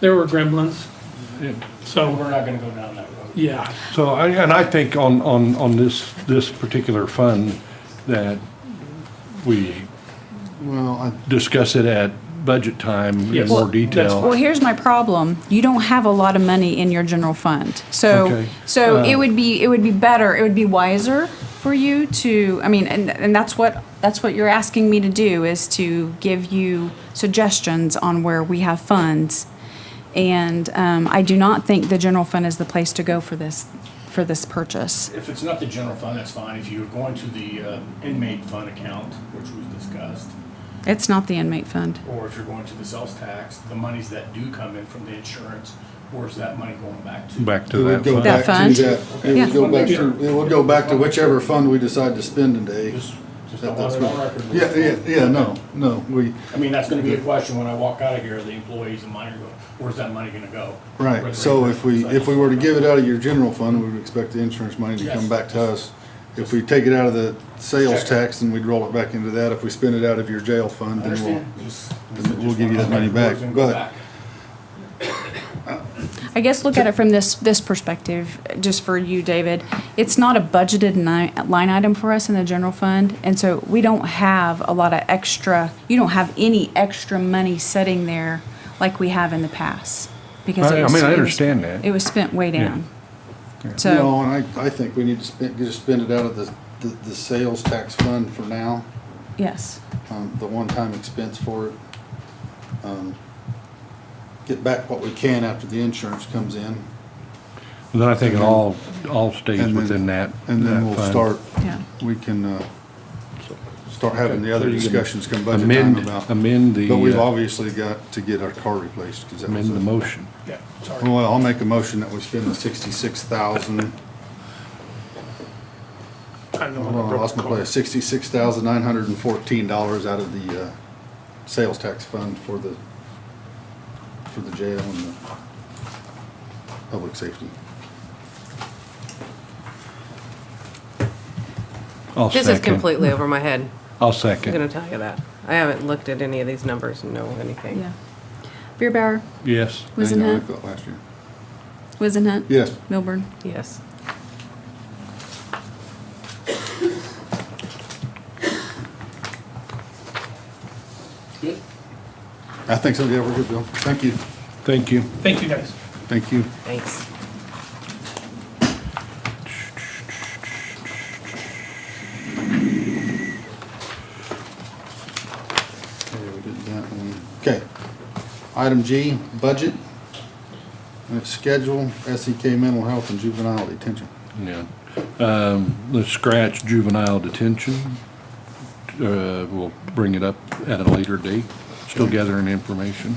There were gremlins, So so, we're not gonna go down that road. yeah, So, I- and I think on, on, on this, this particular fund, that we Well, I, discuss it at budget time in Yes. more Well, that's detail. Well, here's my problem. You don't have a lot of money in your general fund. So, Okay. so it would be, it would be better, it would be wiser for you to, I mean, and, and that's what, that's what you're asking me to do is to give you suggestions on where we have funds. And, um, I do not think the general fund is the place to go for this, for this purchase. If it's not the general fund, that's fine. If you're going to the uh, inmate fund account, which we've discussed, It's not the inmate fund. or if you're going to the sales tax, the monies that do come in from the insurance, where's that money going back to? Back to it that would go fund. back That to fund? that, it Yeah. would go back to, it would go back to whichever fund we decide to spend today. Just, just don't want That's it on what, record. yeah, yeah, yeah, no, no, we, I mean, that's gonna be a question when I walk out of here, the employees and mine are going, where's that money gonna go? right, so if we, if we were to give it out of your general fund, we would expect the insurance money to come Yes. back to us. If we take it out of the Check sales it. tax, then we'd roll it back into that. If we spend it out of your jail fund, then we'll. Understand? Just- then we'll give you that money back, Where's it gonna go but- back? I guess look at it from this, this perspective, just for you, David. It's not a budgeted ni- line item for us in the general fund, and so we don't have a lot of extra, you don't have any extra money sitting there like we have in the past. because I- it I was- mean, I it was- understand that. It was spent way down. So, No, and I, I think we need to spend, just spend it out of the, the, the sales tax fund for now, yes, um, the one-time expense for it. Um, Get back what we can after the insurance comes in, Then I think it all, all stays And then- within that. and that then we'll fund. start, yeah. we can, uh, start having the other So you can discussions come budget time Amend, about. amend But we've the, uh, obviously got to get our car replaced, because that was. amend the a- motion. Yeah, sorry. Well, I'll make a motion that we spend the sixty-six thousand I don't know. Hold when I on, I broke lost the my car. place. Sixty-six thousand nine hundred and fourteen dollars out of the, uh, sales tax fund for the, for the jail and the public safety. I'll This is second. completely over my head. I'll I'm going second. to tell you that. I haven't looked at any of these numbers and know anything. Yeah. Beer Bauer, Yes. Wizenhut, Like that Last year. Wizenhut? Yes, Milburn? Yes. Good? I think so, yeah, we're good, Bill. Thank you, Thank you. Thank you, guys. thank you. Thanks. Okay, we did that one. Okay. Item G, budget. And it's schedule, SEK mental health and juvenile detention. Yeah. Um, let's scratch juvenile detention. Uh, we'll bring it up at a later date. Still gathering information.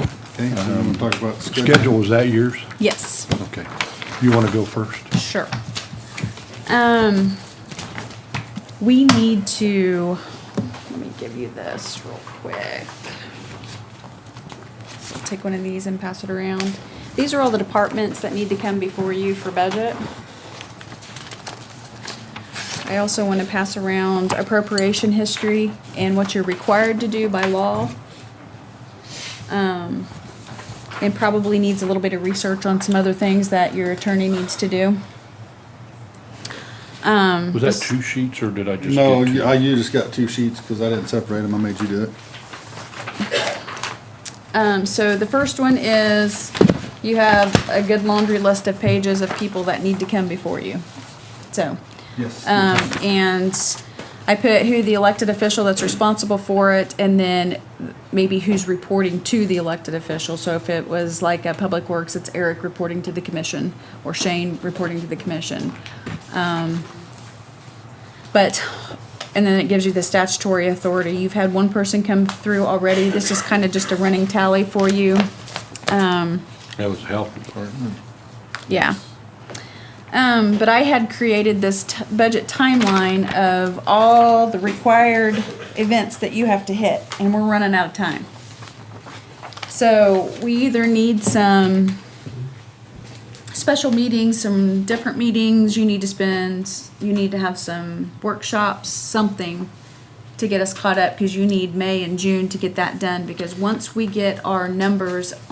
Okay, so we're gonna Um, talk about schedule. Schedule was that yours? Yes. Okay. You want to go first? Sure. Um, we need to, let me give you this real quick. Take one of these and pass it around. These are all the departments that need to come before you for budget. I also want to pass around appropriation history and what you're required to do by law. Um, it probably needs a little bit of research on some other things that your attorney needs to do. Um, Was that two sheets or did I just? No, get two? you- I, you just got two sheets, cause I didn't separate them. I made you do it. Um, so the first one is you have a good laundry list of pages of people that need to come before you. So, Yes. um, and I put who the elected official that's responsible for it and then maybe who's reporting to the elected official. So if it was like a public works, it's Eric reporting to the commission or Shane reporting to the commission. But, and then it gives you the statutory authority. You've had one person come through already. This is kind of just a running tally for you. Um, That was the health department. yeah. Um, but I had created this t- budget timeline of all the required events that you have to hit, and we're running out of time. So we either need some special meetings, some different meetings, you need to spend, you need to have some workshops, something to get us caught up, because you need May and June to get that done, because once we get our numbers